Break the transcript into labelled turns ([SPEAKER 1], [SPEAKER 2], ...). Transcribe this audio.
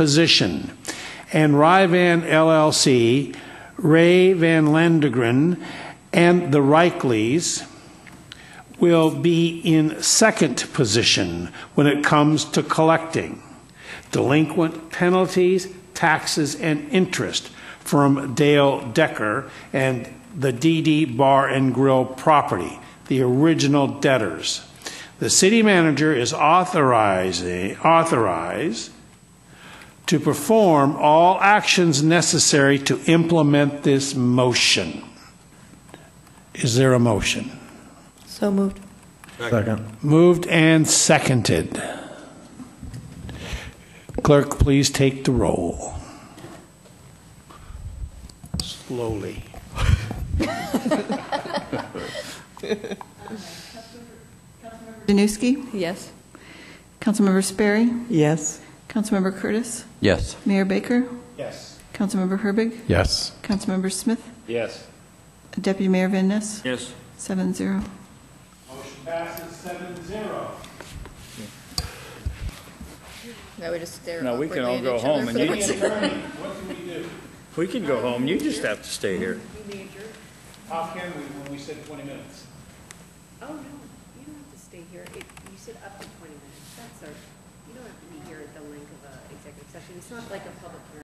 [SPEAKER 1] position, and Ryvan LLC, Ray Van Landegren, and the Reikleys will be in second position when it comes to collecting delinquent penalties, taxes, and interest from Dale Decker and the DD Bar and Grill property, the original debtors. The city manager is authorizing, authorized to perform all actions necessary to implement this motion. Is there a motion?
[SPEAKER 2] So moved.
[SPEAKER 3] Second.
[SPEAKER 1] Moved and seconded. Clerk, please take the roll. Slowly.
[SPEAKER 4] Danuski?
[SPEAKER 2] Yes.
[SPEAKER 4] Councilmember Sperry?
[SPEAKER 2] Yes.
[SPEAKER 4] Councilmember Curtis?
[SPEAKER 3] Yes.
[SPEAKER 4] Mayor Baker?
[SPEAKER 1] Yes.
[SPEAKER 4] Councilmember Herbig?
[SPEAKER 3] Yes.
[SPEAKER 4] Councilmember Smith?
[SPEAKER 1] Yes.
[SPEAKER 4] Deputy Mayor Van Ness?
[SPEAKER 3] Yes.
[SPEAKER 4] Seven zero.
[SPEAKER 1] Motion passes seven zero.
[SPEAKER 2] Now we just stare
[SPEAKER 5] No, we can
[SPEAKER 2] awkwardly
[SPEAKER 5] all
[SPEAKER 2] at each
[SPEAKER 5] go
[SPEAKER 2] other
[SPEAKER 5] home
[SPEAKER 2] for
[SPEAKER 5] and
[SPEAKER 2] the
[SPEAKER 5] you-
[SPEAKER 2] rest of-
[SPEAKER 5] We can go home, you just have to stay here.
[SPEAKER 1] How can we when we said 20 minutes?
[SPEAKER 6] Oh, no, you don't have to stay here. It, you said up to twenty minutes. That's our, you don't have to be here at the length of a executive session. It's not like a public hearing.